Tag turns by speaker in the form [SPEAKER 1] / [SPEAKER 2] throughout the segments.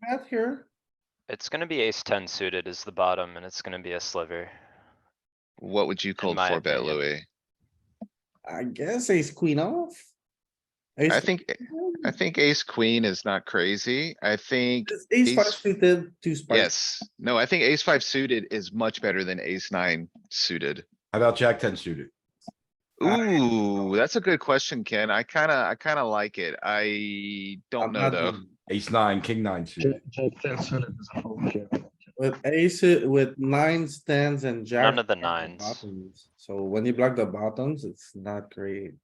[SPEAKER 1] bet here.
[SPEAKER 2] It's gonna be ace ten suited is the bottom and it's gonna be a sliver.
[SPEAKER 3] What would you call
[SPEAKER 2] my
[SPEAKER 3] four bet,
[SPEAKER 2] opinion.
[SPEAKER 3] Louis?
[SPEAKER 1] I guess ace queen off. Ace
[SPEAKER 3] I think, eh,
[SPEAKER 1] queen?
[SPEAKER 4] Mm.
[SPEAKER 3] I think ace queen is not crazy. I think,
[SPEAKER 1] It's Ace five
[SPEAKER 3] ace-
[SPEAKER 1] suited, two spades.
[SPEAKER 3] yes, no, I think ace five suited is much better than ace nine suited.
[SPEAKER 4] How about Jack ten suited?
[SPEAKER 3] Ooh, that's a good question, Ken. I kinda, I kinda like it. I don't
[SPEAKER 1] I'm
[SPEAKER 3] know
[SPEAKER 1] not
[SPEAKER 3] though.
[SPEAKER 1] doing-
[SPEAKER 4] Ace nine, king nine suited.
[SPEAKER 5] Jack ten suited is a fold here.
[SPEAKER 1] With ace, uh, with nines, tens and jack.
[SPEAKER 2] None of the
[SPEAKER 1] block
[SPEAKER 2] nines.
[SPEAKER 1] bottoms. So when you block the bottoms, it's not great.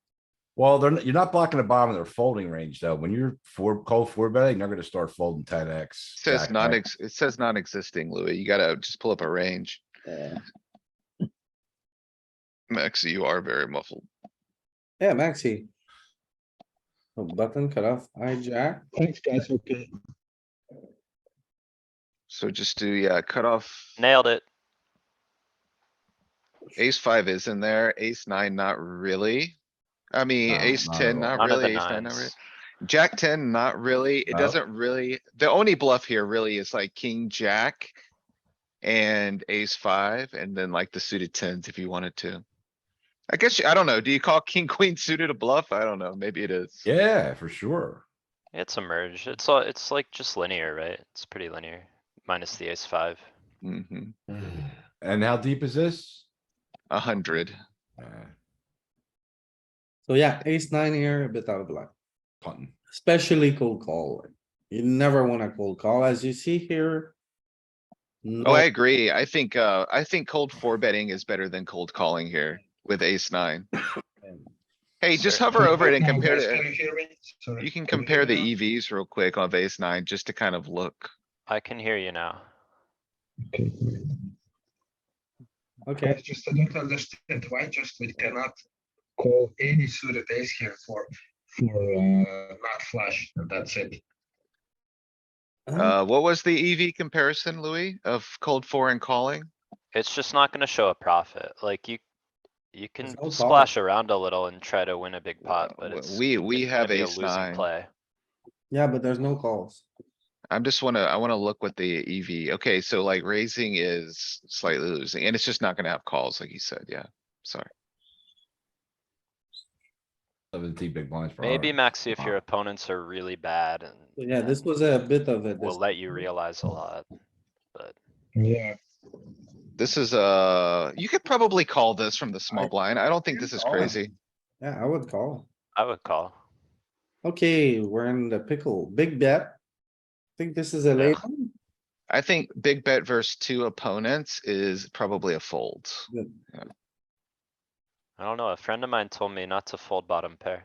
[SPEAKER 4] Well, they're, n- you're not blocking the bottom of their folding range though. When you're four, cold four betting, they're gonna start folding ten X.
[SPEAKER 3] Says non, ex it says non-existing, Louis. You gotta just pull up a range.
[SPEAKER 1] Yeah,
[SPEAKER 3] Max, you are very muffled.
[SPEAKER 1] Yeah, Maxi. Oh, Button cut off, hijack.
[SPEAKER 5] Thanks, guys, okay.
[SPEAKER 3] So just do, yeah, cut off.
[SPEAKER 2] Nailed it.
[SPEAKER 3] Ace five is in there, ace nine, not really. I mean,
[SPEAKER 4] No,
[SPEAKER 3] ace
[SPEAKER 4] not at
[SPEAKER 3] ten,
[SPEAKER 4] all.
[SPEAKER 3] not
[SPEAKER 2] None of the
[SPEAKER 3] really, ace nine, not really.
[SPEAKER 2] nines.
[SPEAKER 3] Jack ten, not really. It
[SPEAKER 4] No.
[SPEAKER 3] doesn't really, the only bluff here really is like king, jack. And ace five, and then like the suited tens if you wanted to. I guess, you- I don't know. Do you call king, queen suited a bluff? I don't know. Maybe it is.
[SPEAKER 4] Yeah, for sure.
[SPEAKER 2] It's a merge. It's all, it's like just linear, right? It's pretty linear, minus the ace five.
[SPEAKER 3] Mhm.
[SPEAKER 4] And how deep is this?
[SPEAKER 3] A hundred. Oh,
[SPEAKER 4] Uh,
[SPEAKER 1] So yeah, ace nine here, a bit out of line,
[SPEAKER 4] punting.
[SPEAKER 1] especially cold call. You never wanna cold call, as you see here.
[SPEAKER 3] Oh,
[SPEAKER 1] No,
[SPEAKER 3] I agree. I think, uh, I think cold four betting is better than cold calling here with ace nine. Hey, just
[SPEAKER 2] Certainly.
[SPEAKER 3] hover over it and
[SPEAKER 5] Now,
[SPEAKER 3] compare
[SPEAKER 5] guys,
[SPEAKER 3] it.
[SPEAKER 5] can you hear me? Sorry.
[SPEAKER 3] You can
[SPEAKER 5] Can you
[SPEAKER 3] compare the
[SPEAKER 5] hear me
[SPEAKER 3] EVs real quick on base nine, just to kind of look.
[SPEAKER 2] I can hear you now.
[SPEAKER 5] now? Okay, great.
[SPEAKER 1] okay,
[SPEAKER 5] I just I don't understand why just we cannot call any suited ace here for, for, uh, not flush, and that's it.
[SPEAKER 2] Mm-hmm.
[SPEAKER 1] Uh,
[SPEAKER 3] Uh, what was the EV comparison, Louis, of cold four and calling?
[SPEAKER 2] It's just not gonna show a profit, like you. You can
[SPEAKER 1] no
[SPEAKER 2] splash around a little and try to win a big pot, but
[SPEAKER 3] W-
[SPEAKER 2] it's.
[SPEAKER 3] We, we
[SPEAKER 2] it's gonna
[SPEAKER 3] have
[SPEAKER 2] be a
[SPEAKER 3] ace
[SPEAKER 2] losing
[SPEAKER 3] nine.
[SPEAKER 2] Play.
[SPEAKER 1] yeah, but there's no calls.
[SPEAKER 3] I'm just wanna, I wanna look with the EV. Okay, so like raising is slightly losing and it's just not gonna have calls like you said. Yeah, sorry.
[SPEAKER 4] Seventy big blinds. per
[SPEAKER 2] Maybe
[SPEAKER 4] hour.
[SPEAKER 2] Maxi, if your
[SPEAKER 4] Wow.
[SPEAKER 2] opponents are really bad and.
[SPEAKER 1] So Yeah, this
[SPEAKER 2] and
[SPEAKER 1] was a bit of a.
[SPEAKER 2] Will let you realize a lot.
[SPEAKER 5] Yeah.
[SPEAKER 3] This is, uh, you could probably call this from the small blind. I don't think
[SPEAKER 1] can
[SPEAKER 3] this is
[SPEAKER 1] call it.
[SPEAKER 3] crazy.
[SPEAKER 1] Yeah, I would call.
[SPEAKER 2] I would call.
[SPEAKER 1] Okay, we're in the pickle. Big bet. Think this is a late one?
[SPEAKER 3] I think big bet versus two opponents is probably a fold.
[SPEAKER 2] I don't know, a friend of mine told me not to fold bottom pair.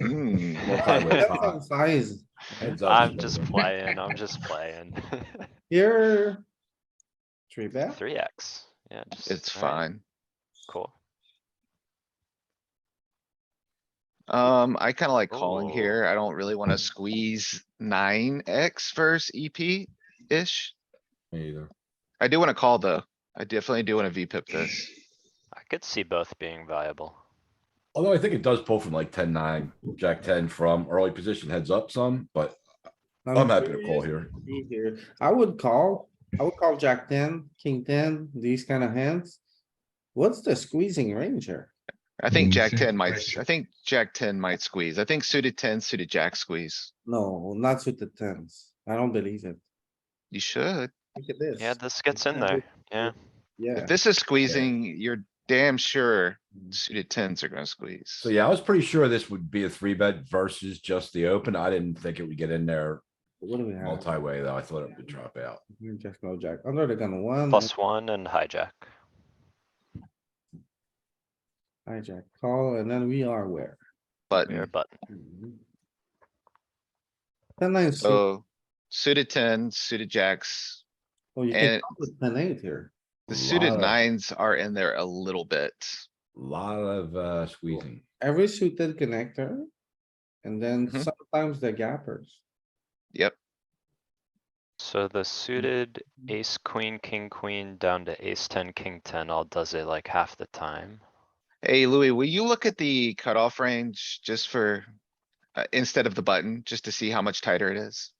[SPEAKER 3] Hmm.
[SPEAKER 4] Well, probably
[SPEAKER 1] Depends
[SPEAKER 4] pot.
[SPEAKER 1] on Size
[SPEAKER 4] Heads up.
[SPEAKER 2] I'm just playing, I'm just playing.
[SPEAKER 1] here. Three bet.
[SPEAKER 2] Three X, yeah. just-
[SPEAKER 3] It's
[SPEAKER 2] all right,
[SPEAKER 3] fine.
[SPEAKER 2] Cool.
[SPEAKER 3] Um, I kinda like calling
[SPEAKER 1] Oh.
[SPEAKER 2] Ooh.
[SPEAKER 3] here. I don't really
[SPEAKER 1] Hmm.
[SPEAKER 3] wanna squeeze nine X versus EP-ish.
[SPEAKER 4] Me either.
[SPEAKER 3] I do wanna call though. I definitely do wanna VPip this.
[SPEAKER 2] I could see both being viable.
[SPEAKER 4] Although I think it does pull from like ten nine, jack ten from early position heads up some, but I'm happy to call here.
[SPEAKER 1] curious here. I would call, I would call jack ten, king ten, these kind of hands. What's the squeezing range here?
[SPEAKER 3] I think
[SPEAKER 5] Mm,
[SPEAKER 3] Jack
[SPEAKER 5] same
[SPEAKER 3] ten might, s-
[SPEAKER 5] question.
[SPEAKER 3] I think Jack ten might squeeze. I think suited ten, suited Jack squeeze.
[SPEAKER 1] No, not with the tens. I don't believe it.
[SPEAKER 3] You should.
[SPEAKER 1] Look at this.
[SPEAKER 2] Yeah, this gets in there, yeah.
[SPEAKER 1] Yeah.
[SPEAKER 3] If this is squeezing, you're damn sure suited tens are gonna squeeze.
[SPEAKER 4] So yeah, I was pretty sure this would be a three bet versus just the open. I didn't think it would get in there
[SPEAKER 1] What do we have?
[SPEAKER 4] multi-way though. I thought it would drop out.
[SPEAKER 1] Just no jack. Under the gun one.
[SPEAKER 2] Plus one and hijack.
[SPEAKER 1] Hijack call, and then we are where?
[SPEAKER 2] We are
[SPEAKER 3] Button,
[SPEAKER 2] button.
[SPEAKER 1] Ten nine, suit-
[SPEAKER 3] so suited ten, suited Jacks.
[SPEAKER 1] oh, you can
[SPEAKER 3] and-
[SPEAKER 1] call with ten eight here.
[SPEAKER 3] The suited
[SPEAKER 4] Lot.
[SPEAKER 3] nines are in there a little bit.
[SPEAKER 4] Lot of uh squeezing.
[SPEAKER 1] Every suited connector. And then
[SPEAKER 3] Mhm.
[SPEAKER 1] sometimes the gappers.
[SPEAKER 3] Yep,
[SPEAKER 2] So the suited ace, queen, king, queen down to ace ten, king ten all does it like half the time.
[SPEAKER 3] Hey Louis, will you look at the cutoff range just for, uh, instead of the button, just to see how much tighter it is?